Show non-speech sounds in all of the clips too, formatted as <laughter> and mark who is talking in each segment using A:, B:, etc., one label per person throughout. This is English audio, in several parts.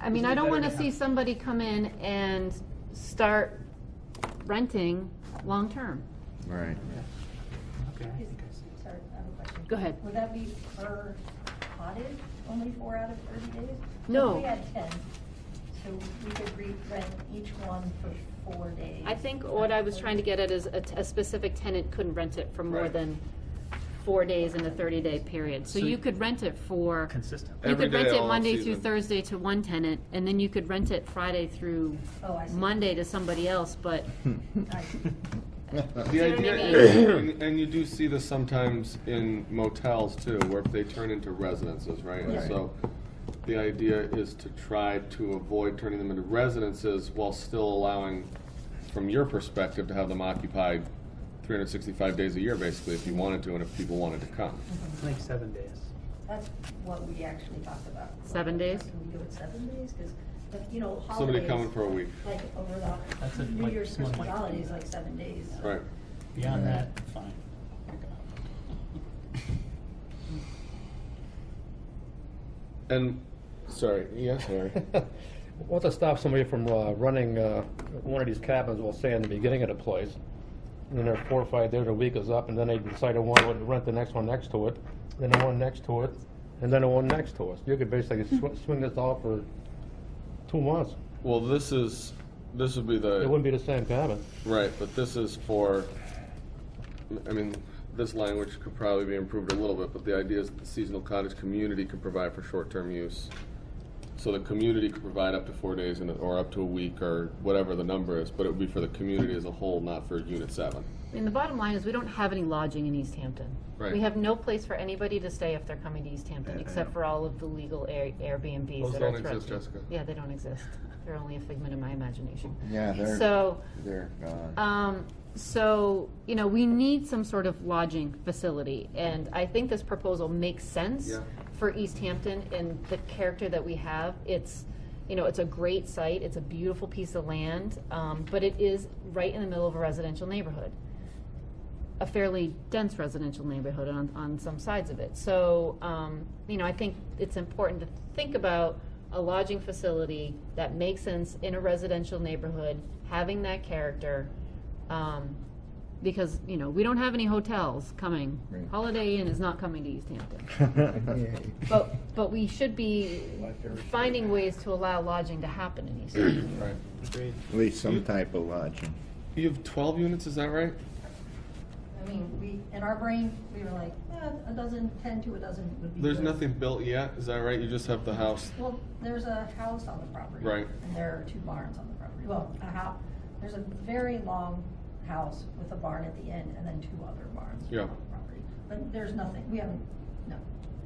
A: I mean,
B: Because
A: I don't
B: they better
A: wanna
B: not.
A: see somebody come in and start renting long-term. <laughs>
C: Right.
B: Okay.
D: Is- Sorry, I have a question.
A: Go ahead.
D: Would that be per cottage, only four out of thirty days?
A: No.
D: If We had ten, so we could re- rent each one for four days.
A: I think what I was trying to get at is a, t- a specific tenant couldn't rent it for more
B: Right.
A: than four days in a thirty-day period. So
B: So
A: you
B: you-
A: could rent it for.
B: Consistent.
A: You
C: Every
A: could
C: day
A: rent it
C: all
A: Monday through
C: season.
A: Thursday to one tenant, and then you could rent it Friday through
D: Oh, I see.
A: Monday to somebody else, but
D: I see.
E: The
A: See what I
E: idea
A: mean?
E: is, and, and you do see this sometimes in motels too, where if they turn into residences, right? And
D: Yeah.
E: So the idea is to try to avoid turning them into residences while still allowing, from your perspective, to have them occupied 365 days a year, basically, if you wanted to and if people wanted to come.
B: Like seven days.
D: That's what we actually talked about.
A: Seven days?
D: Can we do it seven days? Because, you know,
E: Somebody
D: holidays.
E: coming for a week.
D: Like over
B: That's
D: the
B: a-
D: New
B: like
D: Year's,
B: small
D: Christmas
B: like-
D: holidays, like seven days.
A: Mm-hmm.
D: so-
E: Right.
B: Beyond that, fine.
E: And, sorry, yeah, sorry.
F: What to stop somebody from uh, running uh, one of these cabins, we'll say in the beginning of the place, and then they're four or five days, a week is up, and then they decide they want to rent the next one next to it, then the one next to it, and then the one next to it. You could basically sw- swing this off for two months.
E: <laughs> Well, this is, this would be the.
F: It wouldn't be the same cabin.
E: Right, but this is for, I mean, this language could probably be improved a little bit, but the idea is that the seasonal cottage community can provide for short-term use. So the community could provide up to four days and, or up to a week or whatever the number is, but it would be for the community as a whole, not for unit seven.
A: I mean, the bottom line is we don't have any lodging in East Hampton.
E: Right.
A: We have no place for anybody to stay if they're coming to East Hampton, except for all of the legal Air- Airbnbs
E: Those
A: that are
E: don't
A: throughout.
E: exist,
A: the-
E: Jessica.
A: Yeah, they don't exist. They're only a figment of my imagination.
C: Yeah, they're,
A: So,
C: <laughs> they're gone.
A: um, so, you know, we need some sort of lodging facility, and I think this proposal makes sense
E: Yeah.
A: for East Hampton and the character that we have. It's, you know, it's a great site, it's a beautiful piece of land, um, but it is right in the middle of a residential neighborhood. A fairly dense residential neighborhood on, on some sides of it. So, um, you know, I think it's important to think about a lodging facility that makes sense in a residential neighborhood, having that character. Um, because, you know, we don't have any hotels coming.
C: Right.
A: Holiday Inn is not coming to East Hampton.
C: <laughs>
A: But, but we should be finding ways to allow lodging to happen in East Hampton.
E: Right.
B: Agreed.
C: At least some type of lodging.
E: You have twelve units, is that right?
D: I mean, we, in our brain, we were like, eh, a dozen, ten to a dozen would be.
E: There's
D: good.
E: nothing built yet, is that right? You just have the house?
D: Well, there's a house on the property.
E: Right.
D: And there are two barns on the property. Well, a house, there's a very long house with a barn at the end and then two other barns
E: Yeah.
D: on the property. But there's nothing, we haven't, no.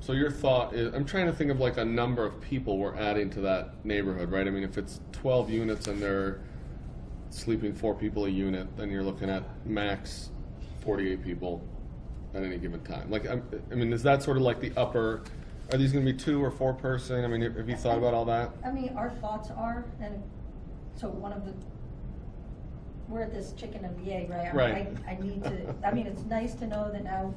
E: So your thought is, I'm trying to think of like a number of people we're adding to that neighborhood, right? I mean, if it's twelve units and they're sleeping four people a unit, then you're looking at max forty-eight people at any given time. Like, I'm, I mean, is that sort of like the upper, are these gonna be two or four person? I mean, have you thought about all that?
D: I mean, our thoughts are, and so one of the, we're at this chicken and the egg, right? I mean,
E: Right.
D: I, I need to, I mean, it's nice to know that now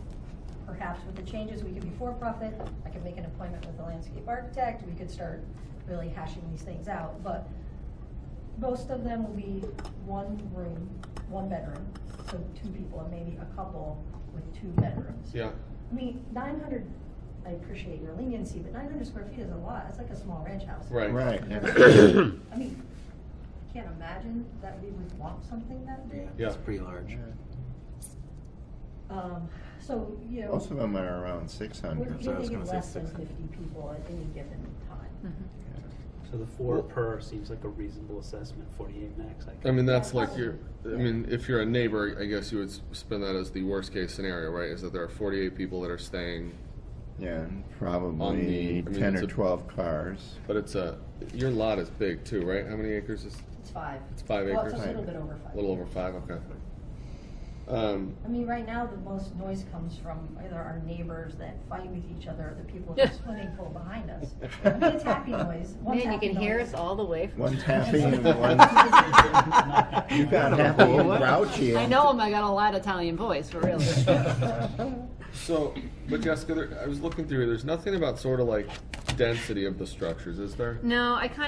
D: perhaps with the changes, we could be for-profit. I could make an appointment with the landscape architect. We could start really hashing these things out, but most of them will be one room, one bedroom, so two people and maybe a couple with two bedrooms.
E: Yeah,
D: I mean, nine hundred, I appreciate your leniency, but nine hundred square feet is a lot. It's like a small ranch house.
E: right.
C: Right.
D: <coughs> I mean, I can't imagine that we would want something that big.
E: Yeah,
B: pretty large.
D: Um, so, you know,
C: Most of them are around six
D: we're
C: hundred.
B: so I was
D: thinking
B: gonna say
D: less than
B: 600.
D: fifty people at any given time.
B: So the four per seems like a reasonable assessment, forty-eight max, I
E: I
B: guess.
E: mean, that's like your, I mean, if you're a neighbor, I guess you would s- spin that as the worst-case scenario, right? Is that there are forty-eight people that are staying
C: Yeah, and
E: On the- I
C: probably
E: mean,
C: ten
E: it's
C: or
E: a-
C: twelve cars.
E: But it's a, your lot is big too, right? How many acres is,
D: It's five.
E: It's five
D: Well, it's
E: acres.
D: a little bit over five.
E: a little over five, okay. Um,
D: I mean, right now, the most noise comes from either our neighbors that fight with each other, or the people in the swimming pool behind us. I mean, it's happy noise. One's
A: Man, you
D: happy
A: can hear us
D: noise.
A: all the way from.
C: One's happy and one's, you got happy and grouchy.
A: <laughs> I know him, I got a loud Italian voice, for
D: <laughs>
A: real.
E: so, but Jessica, there, I was looking through, there's nothing about sort of like density of the structures, is there?
A: No, I kind